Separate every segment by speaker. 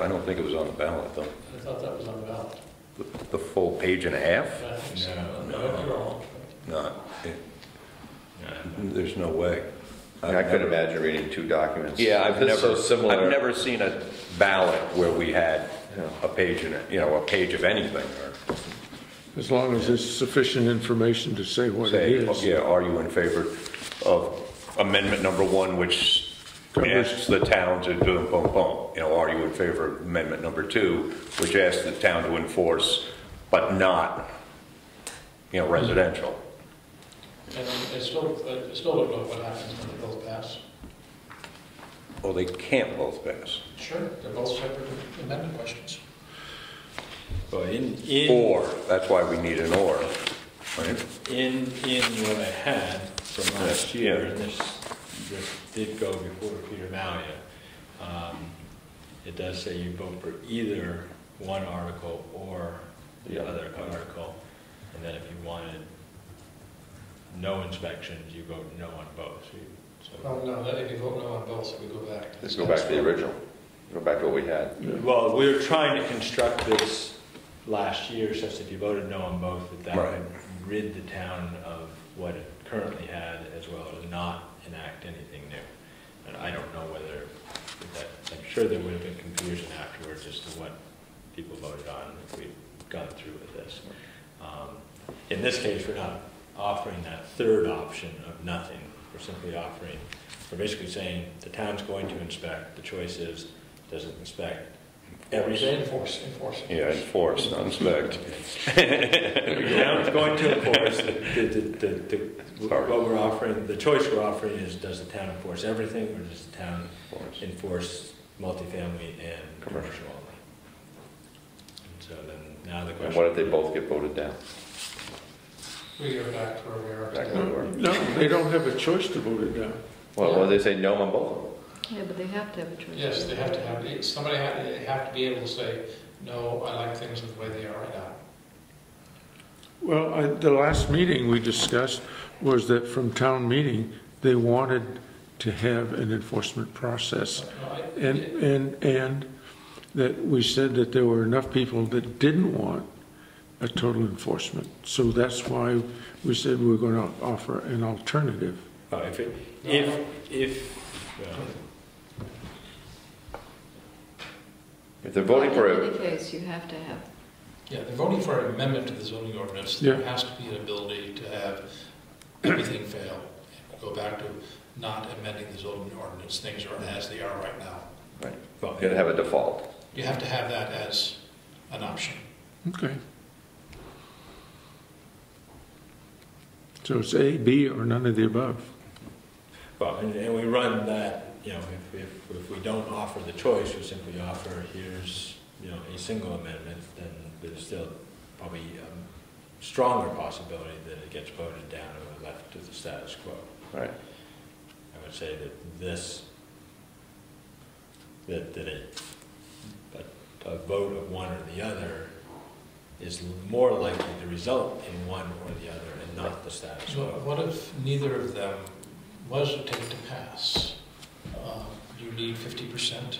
Speaker 1: I don't think it was on the ballot, though.
Speaker 2: I thought that was on the ballot.
Speaker 1: The- The full page and a half?
Speaker 2: I think so. No,
Speaker 3: No,
Speaker 2: you're wrong.
Speaker 1: No, it-
Speaker 3: Yeah.
Speaker 1: there's no way. I've
Speaker 4: I couldn't
Speaker 1: never-
Speaker 4: imagine reading two documents.
Speaker 1: Yeah, I've
Speaker 4: It's
Speaker 1: never,
Speaker 4: so similar.
Speaker 1: I've never seen a ballot where we had
Speaker 4: Yeah.
Speaker 1: a page in it, you know, a page of anything, or
Speaker 5: As long as there's sufficient information to say what it
Speaker 1: say, oh,
Speaker 5: is.
Speaker 1: yeah, are you in favor of amendment number one, which
Speaker 5: Covers-
Speaker 1: asks the town to do boom, boom, you know, are you in favor of amendment number two, which asks the town to enforce, but not, you know, residential?
Speaker 2: And I still, I still don't know what happens when they both pass.
Speaker 1: Well, they can't both pass.
Speaker 2: Sure, they're both separate amendment questions.
Speaker 3: But in, in,
Speaker 1: Or, that's why we need an or, right?
Speaker 3: in, in what I had from last
Speaker 1: Yeah.
Speaker 3: year, and this, this did go before Peter Malia, um, it does say you vote for either one article or the
Speaker 1: Yeah.
Speaker 3: other article. And then if you wanted no inspections, you vote no on both. So you-
Speaker 2: Well, no, that if you vote no on both, we go back.
Speaker 4: Let's go back to the original, go back to what we had.
Speaker 3: So, well, we were trying to construct this last year, such if you voted no on both, that that
Speaker 1: Right.
Speaker 3: would rid the town of what it currently had, as well as not enact anything new. And I don't know whether, that, I'm sure there would have been confusion afterwards as to what people voted on if we'd gone through with this. Um, In this case, we're not offering that third option of nothing. We're simply offering, we're basically saying, the town's going to inspect, the choice is, does it inspect everything?
Speaker 2: Enforce, enforce.
Speaker 1: Yeah, enforce, not inspect.
Speaker 3: The town's going to enforce, the, the, the, the-
Speaker 1: Sorry.
Speaker 3: what we're offering, the choice we're offering is, does the town enforce everything, or does the town
Speaker 1: Enforce.
Speaker 3: enforce multifamily and commercial only? And So then, now the
Speaker 4: And
Speaker 3: question.
Speaker 4: what if they both get voted down?
Speaker 2: We go back to where we are
Speaker 4: Back where
Speaker 2: today.
Speaker 4: we were.
Speaker 5: No, they don't have a choice to vote it down.
Speaker 4: Well, what if they say no on both of them?
Speaker 6: Yeah, but they have to have a choice.
Speaker 2: Yes, they have to have, somebody have, they have to be able to say, no, I like things the way they are right now.
Speaker 5: Well, I- the last meeting we discussed was that from town meeting, they wanted to have an enforcement process.
Speaker 2: No, I-
Speaker 5: And, and, and that we said that there were enough people that didn't want a total enforcement. So that's why we said we we're going to offer an alternative.
Speaker 3: Oh, if, it- if, if, well,
Speaker 4: If they're voting for
Speaker 6: In
Speaker 4: it,
Speaker 6: any case, you have to have,
Speaker 2: Yeah, they're voting for an amendment to the zoning ordinance.
Speaker 5: Yeah.
Speaker 2: There has to be an ability to have everything fail. Go back to not amending the zoning ordinance, things are as they are right now.
Speaker 3: well,
Speaker 4: you're gonna have a default.
Speaker 2: You have to have that as an option.
Speaker 5: Okay. So it's A, B, or none of the above.
Speaker 3: well, and, and we run that, you know, if, if, if we don't offer the choice, we simply offer, here's, you know, a single amendment, then there's still probably a stronger possibility that it gets voted down and we're left to the status quo.
Speaker 4: Right.
Speaker 3: I would say that this, that, that a, a- a vote of one or the other is more likely to result in one or the other and not the status
Speaker 2: So
Speaker 3: quo.
Speaker 2: what if neither of them was to take to pass? Um, You need fifty percent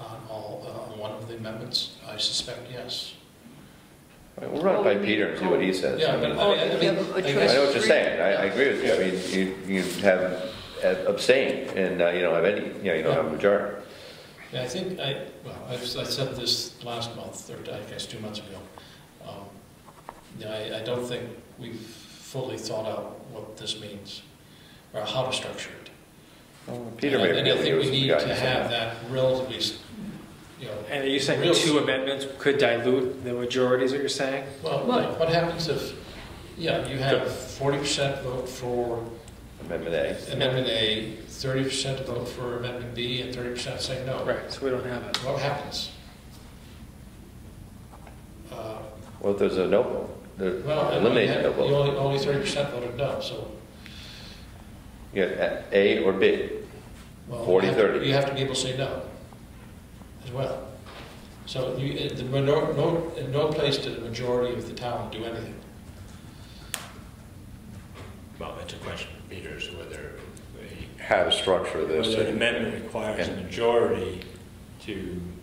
Speaker 2: on all, uh, on one of the amendments? I suspect yes.
Speaker 4: All right, We'll run it by
Speaker 6: Well, we
Speaker 4: Peter and see what he says.
Speaker 2: Yeah,
Speaker 4: I mean,
Speaker 2: but oh, I- I mean,
Speaker 6: Yeah,
Speaker 2: I
Speaker 6: but
Speaker 4: I know
Speaker 2: guess-
Speaker 4: what you're saying, I, I agree with you, I mean, you, you have abstain, and uh, you don't have any, you know, you don't have a majority.
Speaker 2: yeah, I think, I, well, I s- I said this last month, or I guess two months ago. Um, yeah, I, I don't think we've fully thought out what this means, or how to structure it.
Speaker 4: Peter may
Speaker 2: And I-
Speaker 4: be able to give us
Speaker 2: And I think
Speaker 4: some
Speaker 2: we need to
Speaker 4: guidance on
Speaker 2: have
Speaker 4: that.
Speaker 2: that relatively, s- you know,
Speaker 7: And are you saying
Speaker 2: Real-
Speaker 7: two amendments could dilute the majority, is what you're saying?
Speaker 2: Well,
Speaker 6: Well-
Speaker 2: what happens if, yeah, you have forty percent vote for
Speaker 4: Amendment A.
Speaker 2: amendment A, thirty percent vote for amendment B, and thirty percent say no?
Speaker 7: Right, so we don't have it.
Speaker 2: What happens? Uh,
Speaker 4: Well, if there's a no vote,
Speaker 2: Well,
Speaker 4: there-
Speaker 2: I mean,
Speaker 4: eliminate the
Speaker 2: you
Speaker 4: no
Speaker 2: have- you
Speaker 4: vote.
Speaker 2: only, only thirty percent voted no, so.
Speaker 4: You have A- A or B.
Speaker 2: well,
Speaker 4: 40,
Speaker 2: you have to-
Speaker 4: 30.
Speaker 2: You have to be able to say no as well. So you, uh, the, minor- no, in no place did the majority of the town do anything.
Speaker 3: Well, it's a question of Peter's whether a
Speaker 1: How to structure this.
Speaker 3: Whether an
Speaker 1: and-
Speaker 3: amendment requires a majority to